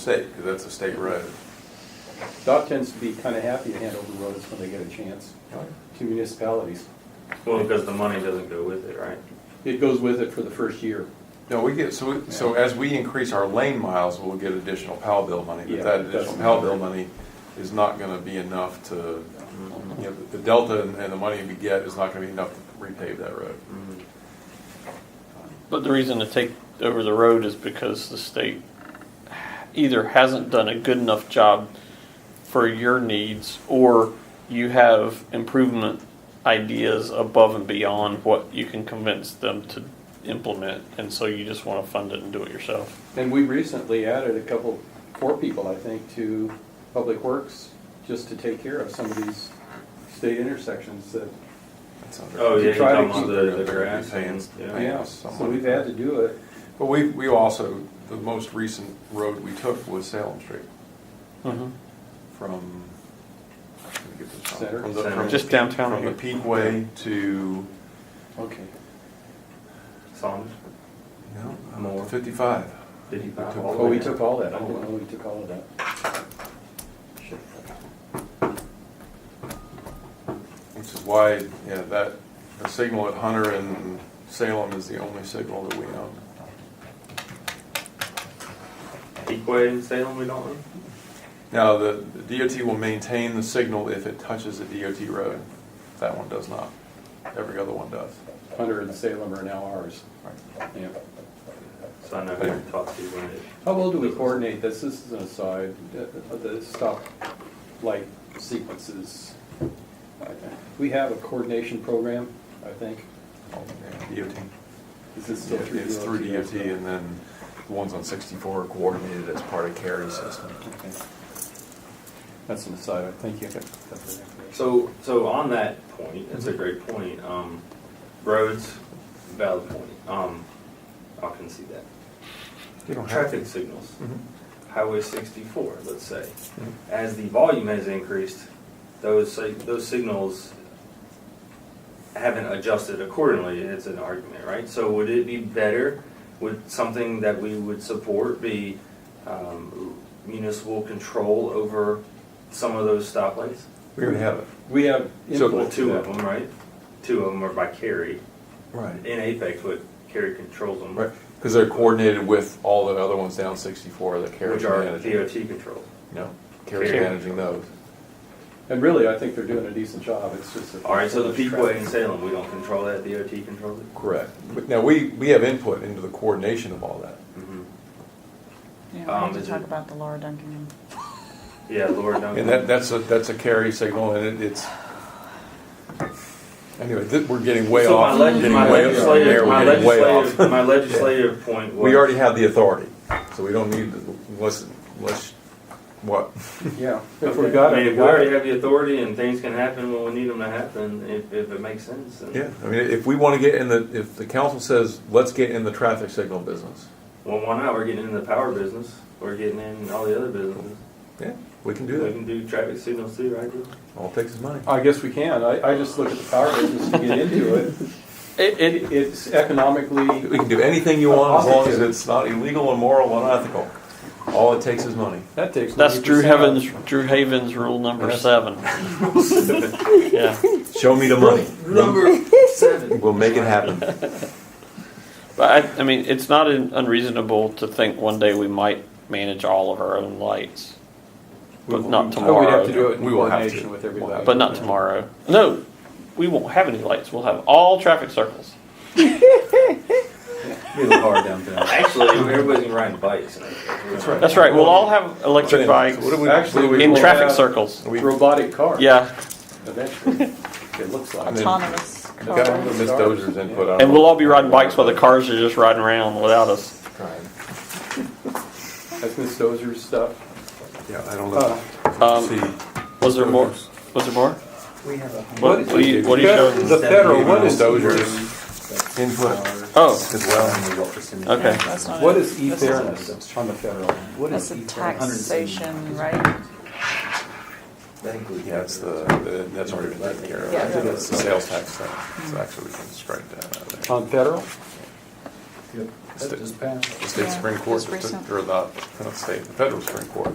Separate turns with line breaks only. state, because that's a state road.
Doc tends to be kind of happy to hand over roads when they get a chance to municipalities.
Well, because the money doesn't go with it, right?
It goes with it for the first year.
No, we get, so, we- so as we increase our lane miles, we'll get additional PAL bill money,
Yeah,
but that additional
that's-
PAL bill money is not gonna be enough to, you know,
Mm-hmm.
the delta and and the money we get is not gonna be enough to repave that road.
Mm-hmm.
But the reason to take over the road is because the state either hasn't done a good enough job for your needs, or you have improvement ideas above and beyond what you can convince them to implement, and so you just wanna fund it and do it yourself.
And we recently added a couple, four people, I think, to Public Works just to take care of some of these state intersections that,
That's under-
Oh,
You
yeah, you're
try to
talking about
keep-
the, the
They're
grass
paying-
and, yeah.
yeah, so we've had to do it.
But we, we also, the most recent road we took was Salem Street from, let me get this
Center?
wrong. From the- from the
Just
peak-
downtown
From the
here.
Peakway to,
Okay.
Songs,
no, uh,
More.
fifty-five.
did you buy
took-
all
Oh,
of
we
it?
took all that. I
Oh,
didn't
wow.
know we took all of that.
Which is why, yeah, that, the signal at Hunter and Salem is the only signal that we own.
Peakway in Salem, we don't own?
Now, the the DOT will maintain the signal if it touches a DOT road. That one does not. Every other one does.
Hunter and Salem are now ours. Yeah.
So I know who to talk to when it,
How well do we coordinate this? This is an aside, the- the stop light sequences. We have a coordination program, I think.
Oh, yeah, DOT.
Is this still through?
It's through DOT
Okay.
and then the ones on 64 are coordinated as part of CARES system.
That's an aside, thank you.
so, so on that point, that's
Mhm.
a great point, um, roads, valid point, um, I can see that.
You don't have to.
Traffic signals,
Mhm.
Highway sixty-four, let's say,
Mhm.
as the volume has increased, those, sig- those signals haven't adjusted accordingly, it's an argument, right? So would it be better, would something that we would support be um, municipal control over some of those stoplights?
We already have it.
We have
So,
Well,
input to
two of
that.
them, right? Two of them are by Kerry, in
Right.
Apex, but Kerry controls them,
Right, because they're coordinated with all the other ones down 64 that CARES
which are
managing.
DOT controlled.
No, CARES
Care.
managing those.
And really, I think they're doing a decent job, it's just. that-
All right, so the Peakway in Salem, we don't control that, DOT controls it?
Correct. But Now, we, we have input into the coordination of all that.
Mhm.
Yeah, we
Um,
need
is
to talk
it-
about the Laura Duncan.
Yeah, Laura Duncan.
And that, that's a, that's a carry signal, and it- it's, anyway, th- we're getting way
So my
off,
leg-
getting
my
way off, from
legislative-
there,
my
we're getting way
legislative-
off.
My legislative point was.
We already have the authority, so we don't need, to- unless, unless, what?
Yeah. If
Okay.
we got
I mean,
it, we
if we
got
already
it.
have the authority and things can happen when we need them to happen, if, if it makes sense. then-
Yeah, I mean, if we want to get in the, if the council says, let's get in the traffic signal business,
Well, why not? We're getting into the power business. We're getting in all the other businesses.
yeah, we can do
We
that.
can do traffic signals too, right? Drew?
All it takes is money.
I guess we can, I, I just look at the power business to get into it.
It, it,
It, it's economically
We can do anything you want, as long as it's not illegal, immoral, unethical. All it takes is money.
That takes.
that's Drew
90%
Havens, Drew Havens rule number seven. Yeah,
Show me the money.
Number seven.
We'll make it happen.
but I, I mean, it's not un- unreasonable to think one day we might manage all of our own lights. But not
Oh, we'd have to do
tomorrow,
it in
We will have to.
coordination with everybody.
but not tomorrow. No, we won't have any lights, we'll have all traffic circles.
Be the car downtown. Actually, everybody's riding bikes. That's
right.
That's right, we'll all have electric
Anyway, so
bikes
what do we-
Actually, we
in
will
traffic
have
circles.
We-
Robotic car.
Yeah,
Eventually, it looks
I
like.
mean-
Autonomous
Got
cars.
Ms. Dozier's input on it.
and we'll all be riding bikes while the cars are just riding around without us.
Trying.
That's Ms. Dozier's stuff.
Yeah, I don't
Uh,
know.
Um,
See,
was there more? Was there more?
We have a hundred.
What, what do you, what do you
Fed- The
show?
federal, what
Ms.
is,
Dozier's input
Oh,
as well.
okay.
That's not
what
it.
is e-fairness on the federal?
What
That's
is
a
E four? 170.
taxation, right?
That includes.
Yeah, that's the, the- that's already been taken care of. I think that's the sales tax thing. So actually, we can strike that out of there.
On federal?
Yep, that
Stick-
just passed.
The state
Yeah,
Supreme Court,
just
just
recent.
took- or the, not uh, state, the federal Supreme Court